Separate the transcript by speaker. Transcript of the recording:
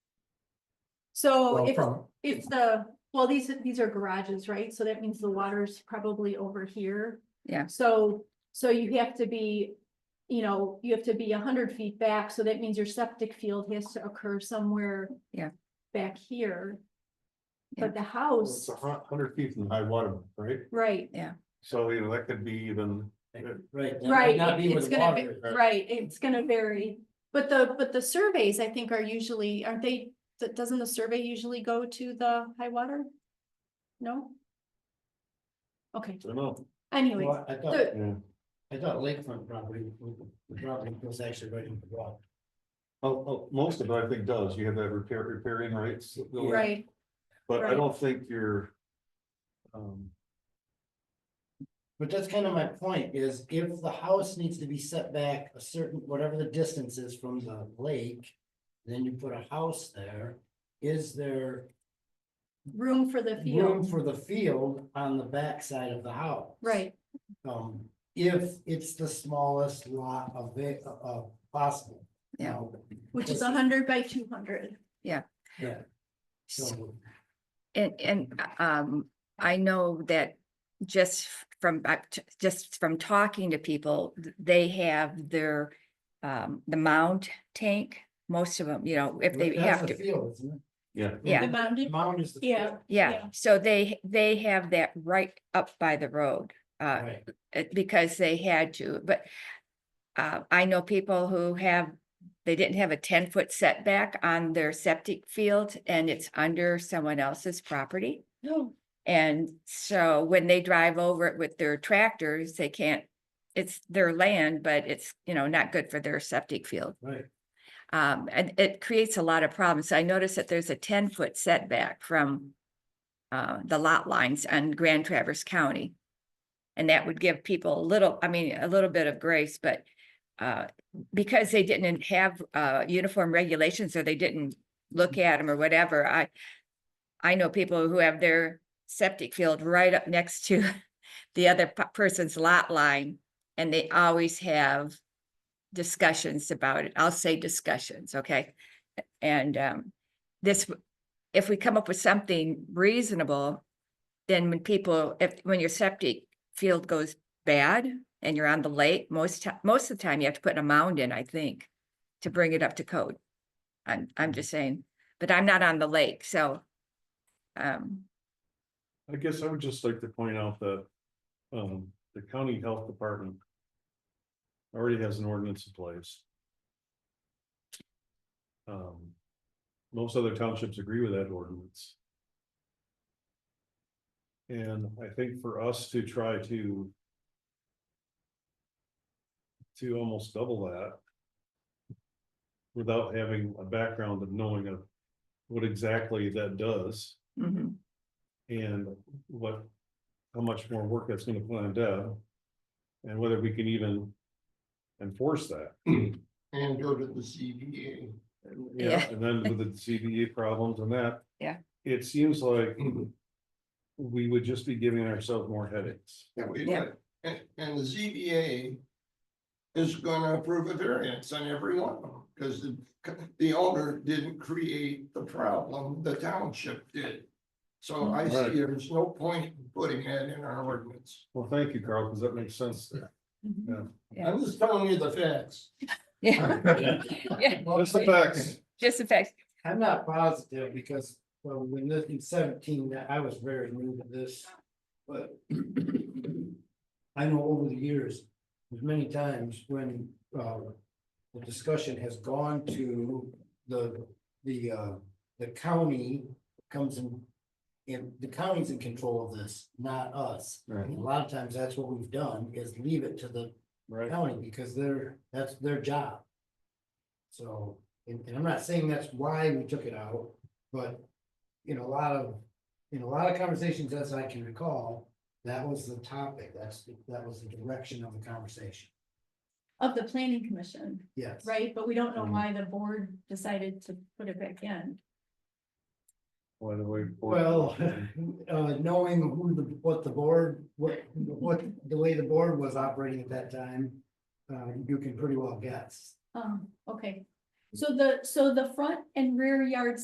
Speaker 1: So
Speaker 2: Well,
Speaker 1: if,
Speaker 2: from-
Speaker 1: if the, well, these, these are garages, right? So that means the water's probably over here.
Speaker 3: Yeah.
Speaker 1: So, so you have to be, you know, you have to be a hundred feet back, so that means your septic field has to occur somewhere.
Speaker 3: Yeah.
Speaker 1: Back here.
Speaker 3: Yeah.
Speaker 1: But the
Speaker 2: Well,
Speaker 1: house,
Speaker 2: It's a hun- hundred feet from high water, right?
Speaker 1: right,
Speaker 2: So you know, that could be even,
Speaker 4: Right. that might
Speaker 1: right,
Speaker 4: Not be
Speaker 1: it-
Speaker 4: where
Speaker 1: it's
Speaker 4: the
Speaker 1: gonna,
Speaker 4: water
Speaker 1: va-
Speaker 4: is.
Speaker 1: right, it's gonna vary. But the, but the surveys, I think, are usually, aren't they, th- doesn't the survey usually go to the high water? No? Okay,
Speaker 2: I don't know.
Speaker 1: anyways.
Speaker 4: Well, I thought,
Speaker 1: the-
Speaker 2: Yeah.
Speaker 4: I thought lakefront property, the property was actually right in the water.
Speaker 2: Oh, oh, most of it, I think, does. You have that repair, repairing rights.
Speaker 1: Right,
Speaker 2: But I
Speaker 1: right.
Speaker 2: don't think you're. Um,
Speaker 4: But that's kind of my point is if the house needs to be set back a certain, whatever the distance is from the lake. Then you put a house there, is there
Speaker 1: room for the
Speaker 4: room
Speaker 1: field,
Speaker 4: for the field on the backside of the house?
Speaker 1: right,
Speaker 4: Um, if it's the smallest lot of it, uh, possible.
Speaker 3: Yeah.
Speaker 4: Now,
Speaker 1: which is hundred by two hundred.
Speaker 4: Yeah. So,
Speaker 3: And, and, um, I know that just from, I- t- just from talking to people, th- they have their, um, the mound tank, most of them, you know, if they
Speaker 4: that's
Speaker 3: have
Speaker 4: the
Speaker 3: to,
Speaker 4: field, isn't it?
Speaker 2: yeah,
Speaker 1: The
Speaker 3: yeah,
Speaker 4: The
Speaker 1: mounted,
Speaker 4: Mound is the.
Speaker 1: yeah,
Speaker 3: yeah.
Speaker 1: yeah.
Speaker 3: So they, they have that right up by the road, uh,
Speaker 4: Right,
Speaker 3: it- because they had to, but uh, I know people who have, they didn't have a ten-foot setback on their septic field and it's under someone else's property.
Speaker 1: no,
Speaker 3: And so when they drive over it with their tractors, they can't, it's their land, but it's, you know, not good for their septic field.
Speaker 4: right.
Speaker 3: Um, and it creates a lot of problems. I noticed that there's a ten-foot setback from uh, the lot lines on Grand Traverse County. And that would give people a little, I mean, a little bit of grace, but uh, because they didn't have uh, uniform regulations or they didn't look at them or whatever, I I know people who have their septic field right up next to the other p- person's lot line, and they always have discussions about it. I'll say discussions, okay? And um, this, w- if we come up with something reasonable, then when people, if, when your septic field goes bad and you're on the lake, most, ti- most of the time you have to put a mound in, I think, to bring it up to code. I'm, I'm just saying, but I'm not on the lake, so um,
Speaker 2: I guess I would just like to point out that. Um, the county health department. Already has an ordinance in place. Um. Most other townships agree with that ordinance. And I think for us to try to. To almost double that. Without having a background of knowing of what exactly that does.
Speaker 3: mhm,
Speaker 2: And what, how much more work that's gonna put on Deb? And whether we can even enforce that.
Speaker 4: And go to the CBA.
Speaker 3: Yeah.
Speaker 2: And then with the CBE problems and that.
Speaker 3: Yeah.
Speaker 2: It seems like we would just be giving ourselves more headaches.
Speaker 5: Yeah, we
Speaker 3: Yeah.
Speaker 5: would. And, and the ZBA is gonna approve a variance on every one of them, because the, the owner didn't create the problem, the township did. So I
Speaker 2: Right.
Speaker 5: see there's no point in putting that in our ordinance.
Speaker 2: Well, thank you, Carl, because that makes sense.
Speaker 1: Mhm.
Speaker 3: yeah.
Speaker 5: I'm just telling you the facts.
Speaker 3: Yeah, yeah,
Speaker 2: That's the facts.
Speaker 3: just the fact,
Speaker 4: I'm not positive because well, when this in seventeen, that I was very new to this, but. I know over the years, there's many times when uh the discussion has gone to the the uh the county comes in. And the county's in control of this, not us.
Speaker 2: Right.
Speaker 4: And A lot of times that's what we've done is leave it to the
Speaker 2: Right.
Speaker 4: county because they're, that's their job. So, and, and I'm not saying that's why we took it out, but in a lot of, in a lot of conversations as I can recall, that was the topic, that's, that was the direction of the conversation,
Speaker 1: Of the planning commission,
Speaker 4: yes. Mm-hmm.
Speaker 1: right? But we don't know
Speaker 2: Mhm.
Speaker 1: why the board decided to put it back in.
Speaker 2: By the way.
Speaker 4: Well, uh, knowing who the, what the board, what, what, the way the board was operating at that time, uh, you can pretty well guess.
Speaker 1: Um, okay. So the, so the front and rear yard